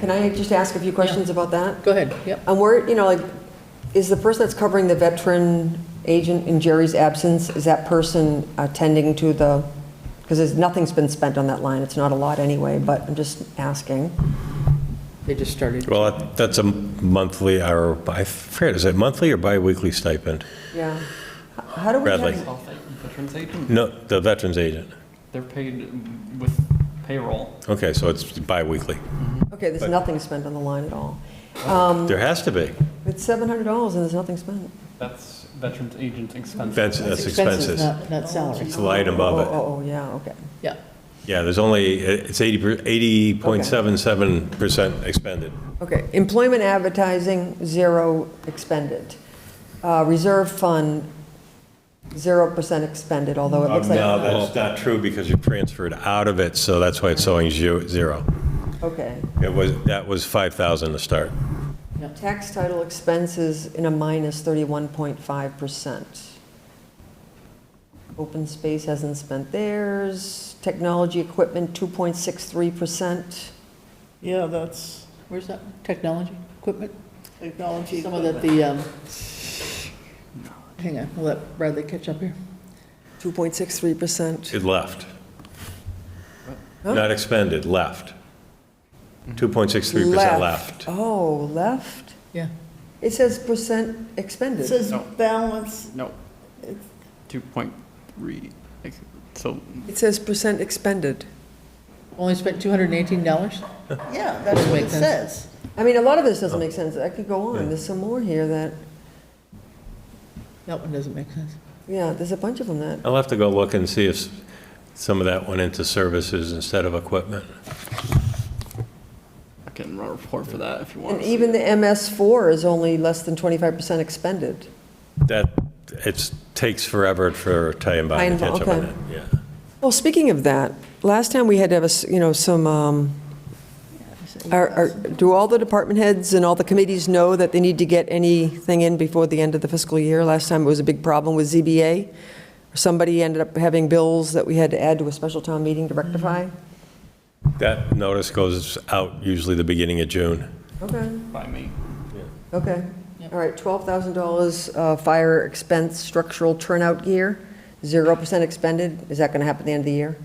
Can I just ask a few questions about that? Go ahead, yep. And where, you know, like, is the person that's covering the veteran agent in Jerry's absence, is that person attending to the, because there's, nothing's been spent on that line, it's not a lot anyway, but I'm just asking. They just started. Well, that- that's a monthly, or, I forget, is it monthly or bi-weekly stipend? Yeah. How do we Bradley. have, Health agent, Veterans agent, No, the veterans agent. they're paid with payroll. Okay, so it's bi-weekly. okay, there's But- nothing spent on the line at all. There has to be. It's $700 and there's nothing spent. That's Veterans Agent expense. That's that's expenses. Not not It's salaries, the line Oh, above it. oh, oh, yeah, okay. yeah. Yeah, there's only, it's 80 per- 80.77% expended. Okay, employment advertising, zero expended. Uh, Reserve fund, 0% expended, although it Um, No, looks like. that's not true because you transferred out of it, so that's why it's showing zero- zero. Okay. It was, that was 5,000 to start. Tax title expenses in a minus 31.5%. Open space hasn't spent theirs. Technology equipment, 2.63%. Yeah, that's Where's that, technology, equipment? technology. Some of that, equipment. the, um, hang on, we'll let Bradley catch up here. 2.63%. It left. Huh? Not expended, left. 2.63% left. Oh, left? Yeah. It says percent It expended. says No. balance, No, two point three, so It says percent expended. Only spent $218? yeah, that's what it Makes sense. says. I mean, a lot of this doesn't make sense. I could go on. There's some more here that, That one doesn't make sense. yeah, there's a bunch of them that, I'll have to go look and see if some of that went into services instead of equipment. I can run a report for that if you want. and even the MS4 is only less than 25% expended. That, it takes forever for Italian Bob to Pine Bar, catch up on okay. it, yeah. Well, speaking of that, last time we had to have, a s- you know, some, um, are- are- do all the department heads and all the committees know that they need to get anything in before the end of the fiscal year? Last time it was a big problem with ZBA. Somebody ended up having bills that we had to add to a special town meeting to rectify. That notice goes out usually the beginning of June. Okay, By me. okay. Yep. All right, $12,000 uh, fire expense structural turnout gear, 0% expended. Is that going to happen at the end of the year?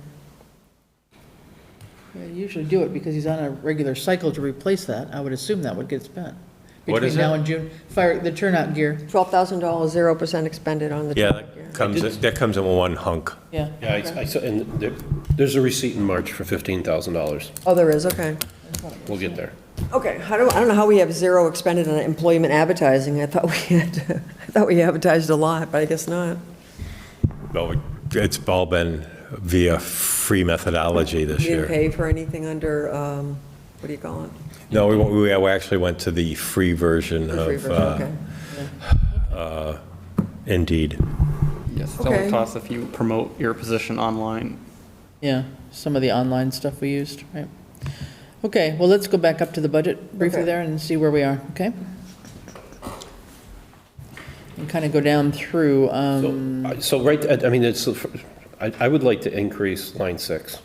Yeah, you Usually do it because he's on a regular cycle to replace that. I would assume that would get spent. What is Between now it? and June, fire, the turnout gear, $12,000, 0% expended on the Yeah, turnout gear. that comes, that comes in one hunk. yeah. Yeah, I- I, saw- and there- there's a receipt in March for $15,000. Oh, there is, okay. We'll get there. Okay, I don't, I don't know how we have zero expended on employment advertising. I thought we had, I thought we advertised a lot, but I guess not. Well, it's all been via free methodology this We didn't year. pay for anything under, um, what do you call it? No, we, we actually went to the free version The free of version, uh, okay. Indeed. Yes, it's all Okay. it costs if you promote your position online. Yeah, some of the online stuff we used, right? Okay, well, let's go back up to the budget briefly Okay. there and see where we are, okay? And kind of go down through, um, So, I- so right, I- I mean, it's, uh, I, I would like to increase line six,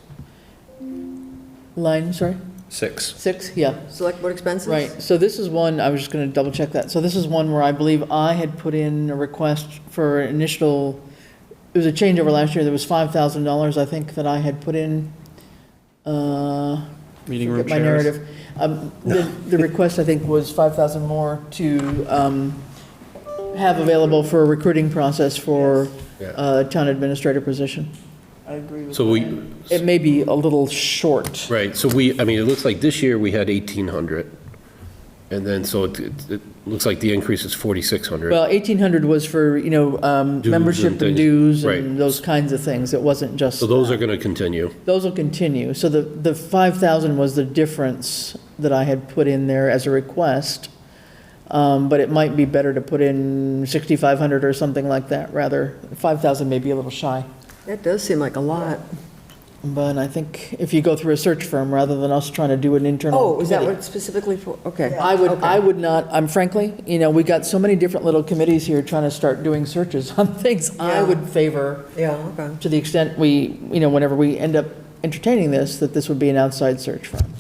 line, sorry, six. six, yeah, Select board expenses? right. So this is one, I was just going to double check that. So this is one where I believe I had put in a request for initial, it was a changeover last year, there was $5,000, I think, that I had put in. Uh, Meeting room Get my chairs. narrative. Um, The the request, I think, was 5,000 more to um, have available for a recruiting process for uh, a town administrator position. I agree with So we, It may be a little short. right, so we, I mean, it looks like this year we had 1,800. And then, so it, it it looks like the increase is 4,600. Well, 1,800 was for, you know, um, and membership and things. dues Right. and those kinds of things. It wasn't just, So those are going to continue. those will continue. So the, the 5,000 was the difference that I had put in there as a request. Um, But it might be better to put in 6,500 or something like that, rather. 5,000 may be a little shy. That does seem like a lot. But I think if you go through a search firm, rather than us trying to do an internal. Oh, is that committee- what specifically for, okay. I would, I would not, I'm frankly, you know, we got so many different little committees here trying to start doing searches on things. I Yeah. would favor, Yeah, okay. to the extent we, you know, whenever we end up entertaining this, that this would be an outside search firm.